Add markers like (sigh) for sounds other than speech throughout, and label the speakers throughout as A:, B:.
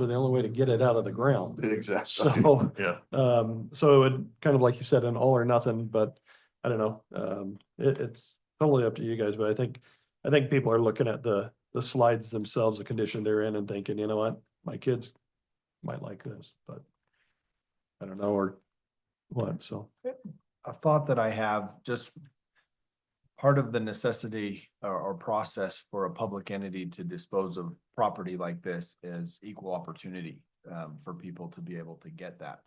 A: are the only way to get it out of the ground.
B: Exactly.
A: So,
B: (laughs) Yeah,
A: um, so it kind of like you said, an all or nothing, but I don't know. Um, it, it's totally up to you guys, but I think, I think people are looking at the, the slides themselves, the condition they're in and thinking, you know what, my kids might like this, but I don't know, or what, so.
C: a thought that I have, just part of the necessity or, or process for a public entity to dispose of property like this is equal opportunity um, for people to be able to get that.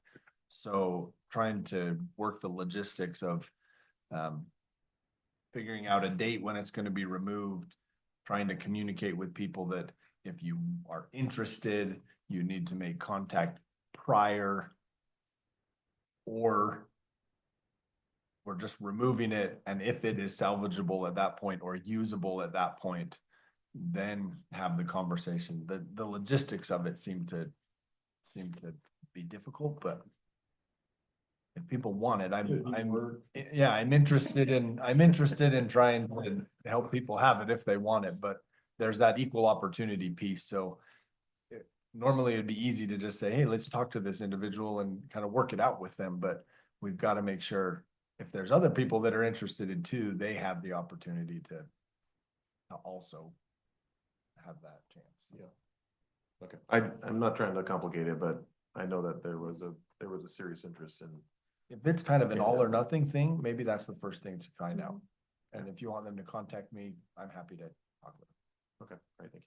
C: So trying to work the logistics of um, figuring out a date when it's going to be removed, trying to communicate with people that if you are interested, you need to make contact prior or we're just removing it, and if it is salvageable at that point or usable at that point, then have the conversation. The, the logistics of it seem to, seem to be difficult, but if people want it, I'm, I'm, yeah, I'm interested in, I'm interested in trying to help people have it if they want it, but there's that equal opportunity piece, so it- normally it'd be easy to just say, hey, let's talk to this individual and kind of work it out with them, but we've got to make sure if there's other people that are interested in too, they have the opportunity to to also have that chance. Yeah.
B: okay. I, I'm not trying to complicate it, but I know that there was a, there was a serious interest in,
C: If it's kind of an
B: Yeah.
C: all or nothing thing, maybe that's the first thing to find out. And if you want them to contact me, I'm happy to talk with them.
B: okay, all right, thank you.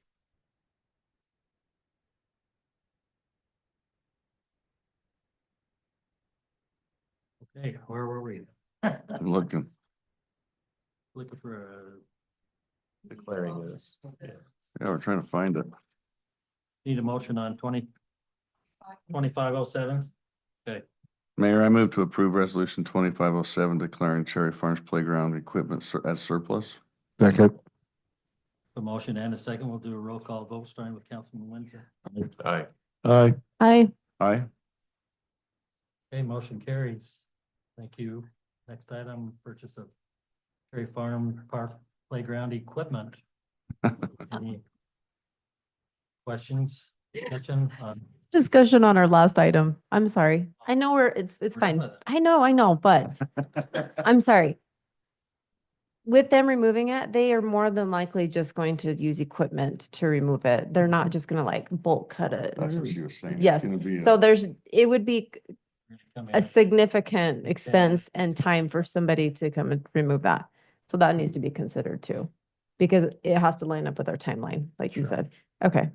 D: Okay, where were we?
E: I'm looking.
D: Looking for
B: Declaring this.
D: a,
E: Yeah, we're trying to find it.
D: need a motion on twenty, twenty-five oh seven?
E: Mayor, I move to approve resolution twenty-five oh seven declaring Cherry Farms Playground equipment sur- as surplus.
F: Second,
D: A motion and a second, we'll do a roll call vote, starting with Councilman Windsor.
B: All right,
A: I
G: Aye.
E: Aye.
D: Okay, motion carries. Thank you. Next item, purchase of Prairie Farm Park Playground Equipment. Any Questions, discussion on?
G: Discussion on our last item. I'm sorry. I know we're, it's, it's
D: We're done
G: fine.
D: with it.
G: I know, I know, but I'm sorry. With them removing it, they are more than likely just going to use equipment to remove it. They're not just gonna like bolt cut it.
E: That's what she was saying. It's
G: Yes,
E: gonna be a-
G: so there's, it would be
D: come in?
G: a significant expense and time for somebody to come and remove that. So that needs to be considered too, because it has to line up with our timeline, like you
D: Sure.
G: said. Okay.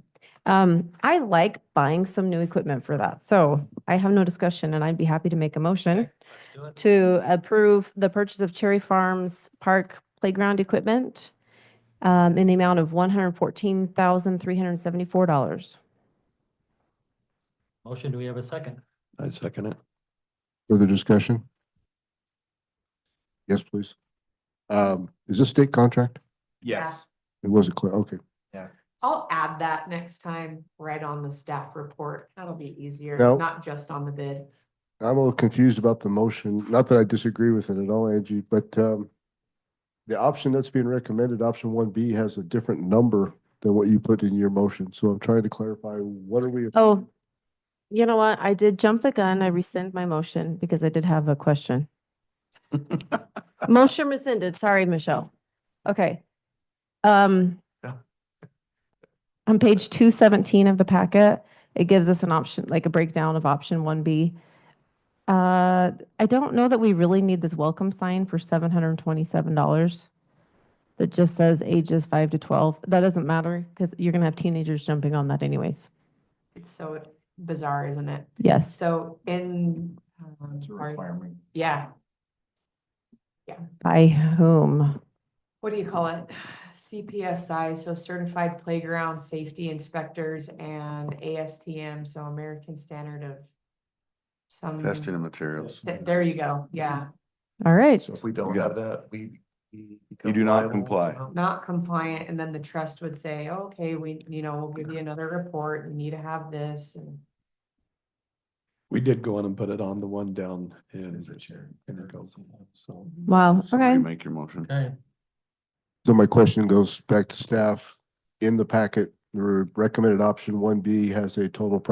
G: Um, I like buying some new equipment for that, so I have no discussion and I'd be happy to make a motion
D: Okay, let's do it.
G: to approve the purchase of Cherry Farms Park Playground Equipment um, in the amount of one hundred fourteen thousand, three hundred seventy-four dollars.
D: Motion, do we have a second?
A: I second it.
F: further discussion? Yes, please. Um, is this state contract?
C: Yes.
F: It wasn't clear, okay.
H: I'll add that next time, right on the staff report. That'll be easier,
F: No.
H: not just on the bid.
F: I'm a little confused about the motion, not that I disagree with it at all, Angie, but, um, the option that's being recommended, option one B, has a different number than what you put in your motion, so I'm trying to clarify, what are we?
G: Oh, you know what? I did jump the gun. I rescind my motion because I did have a question. Motion rescinded. Sorry, Michelle. Okay. Um,
B: Yeah.
G: on page two seventeen of the packet, it gives us an option, like a breakdown of option one B. Uh, I don't know that we really need this welcome sign for seven hundred and twenty-seven dollars that just says ages five to twelve. That doesn't matter because you're gonna have teenagers jumping on that anyways.
H: It's so bizarre, isn't it?
G: Yes.
H: So in, um,
C: It's a
H: our-
C: requirement.
H: yeah,
G: By whom?
H: what do you call it? (sighs) CPSI, so Certified Playground Safety Inspectors and ASTM, so American Standard of
E: (laughs)
H: some.
E: Testing of materials.
H: Th- There you go, yeah.
G: All right.
B: so if we don't
E: Yeah.
B: have that, we. we become
E: do not
B: liable
E: comply.
B: somehow?
H: not compliant, and then the trust would say, okay, we, you know, we'll give you another report, you need to have this, and
A: We did go in and put it on the one down in.
C: It's a chair.
A: in Nichols, So.
G: Wow.
E: So
G: Okay.
E: Remake your motion.
D: Okay,
F: So my question goes back to staff. In the packet, The recommended option one B has a total